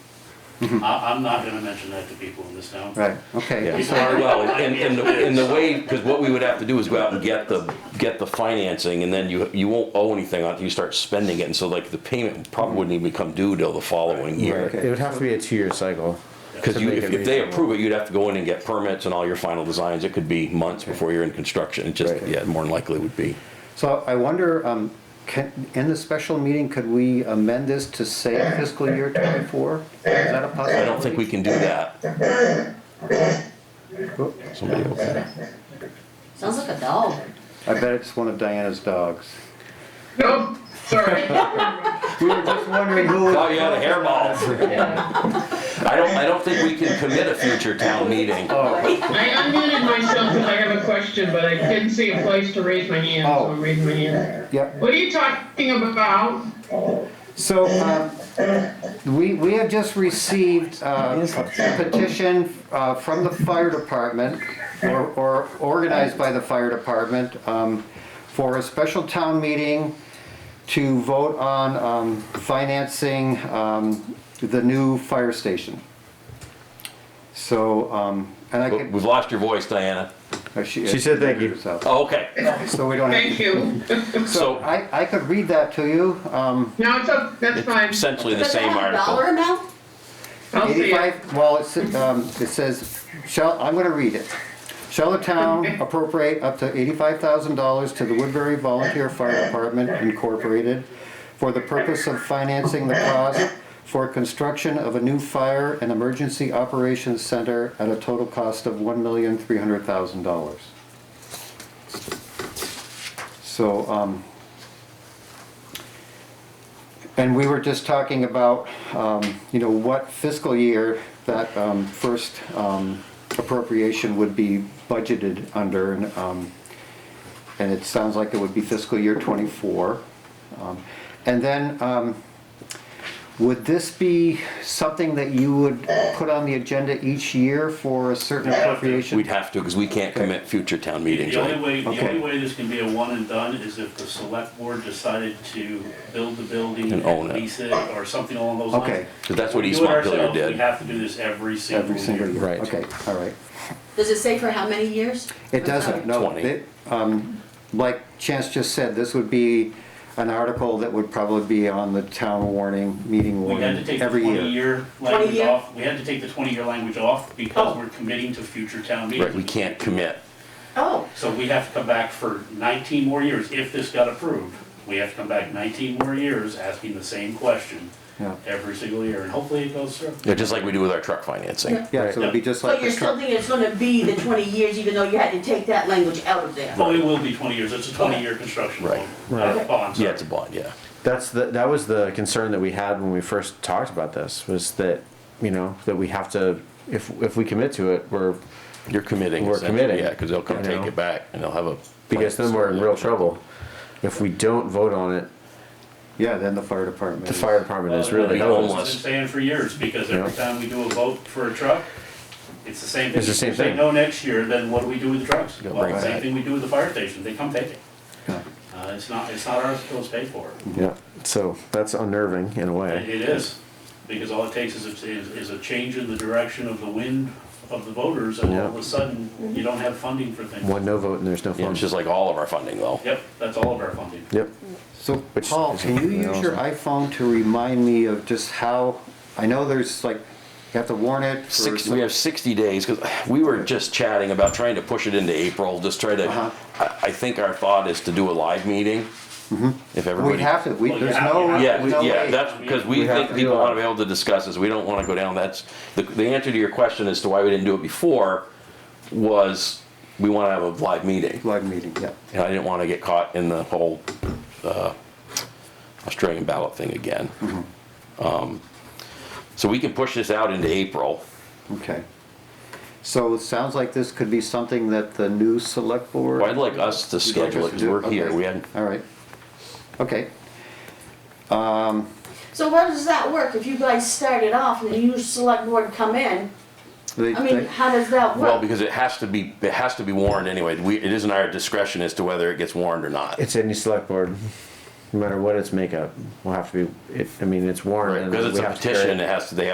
I, I'm not gonna mention that to people in this town. Right, okay. Yeah. Well, and, and the, and the way, because what we would have to do is go out and get the, get the financing, and then you, you won't owe anything until you start spending it, and so like the payment probably wouldn't even come due till the following Right, year. it would have to be a two-year cycle. Because to you, make if, it if they reasonable. approve it, you'd have to go in and get permits and all your final designs, it could be months before you're in construction, it just, Right. yeah, more than likely would be. So I wonder, um, can, in the special meeting, could we amend this to say fiscal year twenty-four? Is that a possibility? I don't think we can do that. Somebody else. Sounds like a dog. I bet it's one of Diana's dogs. Nope, sorry. We were just wondering who. Oh, you had a hairball. I don't, I don't think we can commit a future town meeting. Oh, I unmuted myself because I have a question, but I didn't see a place to raise my hand, so I'm raising my hand. yep. What are you talking about? So, um, we, we have just received uh, a petition uh, from the fire department, or or organized by the fire department, um, for a special town meeting to vote on um, financing um, the new fire station. So, um, and I could. We've lost your voice, Diana. uh, She She said thank you. So Oh, okay, so we don't have, Thank you. so. I, I could read that to you. um, No, it's up, that's fine. It's essentially the Does it same have a dollar article. amount? I'll see it. 85, well, it's, um, it says, shall, I'm gonna read it. Shall the town appropriate up to eighty-five thousand dollars to the Woodbury Volunteer Fire Department Incorporated for the purpose of financing the cost for construction of a new fire and emergency operations center at a total cost of one million, three hundred thousand dollars? So, um, and we were just talking about, um, you know, what fiscal year that um, first um, appropriation would be budgeted under, and, um, and it sounds like it would be fiscal year '24. And then, um, would this be something that you would put on the agenda each year for a certain appropriation? We'd have to, because we can't commit future town meetings. The only right? way, the Okay. only way this can be a one and done is if the select board decided to build the building And own and it. lease it or something along those lines. Okay, Because that's what We do East it Montpelier ourselves, We did. have to do this every single every single year. year. Right. Okay, all right. Does it say for how many years? It doesn't, no. 20. It, um, Like Chance just said, this would be an article that would probably be on the town warning, meeting We had to warning take the every year. twenty-year 20 language year? off, we had to take the twenty-year language off because Oh. we're committing to future town meetings. Right, we can't commit. Oh, So we have to come back for 19 more years, if this got approved, we have to come back 19 more years asking the same question Yeah. every single year, and hopefully it goes through. Yeah, just like we do with our truck financing. Yeah. Yeah, so it'd be just but like you're the still truck. thinking it's gonna be the twenty years, even though you had to take that language out of there? Well, it will be 20 years, it's a 20-year construction Right. loan. uh, Right. bond, Yeah, sorry. it's a bond, yeah. That's the, that was the concern that we had when we first talked about this, was that, you know, that we have to, if, if we commit to it, we're, You're committing. We're essentially, committing. Yeah, because they'll come I take know. it back and they'll have a. because then we're in real trouble. If we don't vote on it, Yeah, then the fire department. the is- fire department is Well, really you know, It's helpless. been saying for years, because every Yeah. time we do a vote for a truck, it's the same thing. It's the same If they thing. no next year, then what do we do with the trucks? Gotta Well, bring it same back. thing we do with the fire station, they come take it. Yeah. Uh, It's not, it's not ours till it's paid for. Yeah, so that's unnerving in a It way. it is, because all it takes is, a- is is a change in the direction of the wind of the voters, and all of a Yeah. sudden, you don't have funding for things. One no vote and there's no Yeah, funds. it's just like all of our funding though. Yep, that's all of our funding. Yep, So Which Paul, is- can you use your iPhone to remind me of just how, I know there's like, you have to warn it for. Six, some- we have 60 days, because we were just chatting about trying to push it into April, just try to, Uh-huh. I, I think our thought is to do a live meeting. If everybody. We'd have to, we, Well, you there's have- no, you have- Yeah, no we- yeah, way. that's, because we We have think to people do it. want to be able to discuss this, we don't want to go down, that's, the, the answer to your question as to why we didn't do it before was, we want to have a live meeting. Live meeting, yeah. And I didn't want to get caught in the whole uh, Australian ballot thing again. Mm-hmm. Um, So we can push this out into April. Okay. So it sounds like this could be something that the new select board. Well, I'd like us to You'd like schedule us to it, 'cause do it? we're here, Okay. we hadn't All right. Okay, So how does that work? If you guys started off and the new select board come in, They- I mean, they- how does that Well, work? because it has to be, it has to be warned anyway. We, it isn't our discretion as to whether it gets warned or not. it's any select board, no matter what its makeup, will have to be, it, I mean, it's warranted. Because it's we a have to carry it. petition, it has to, they have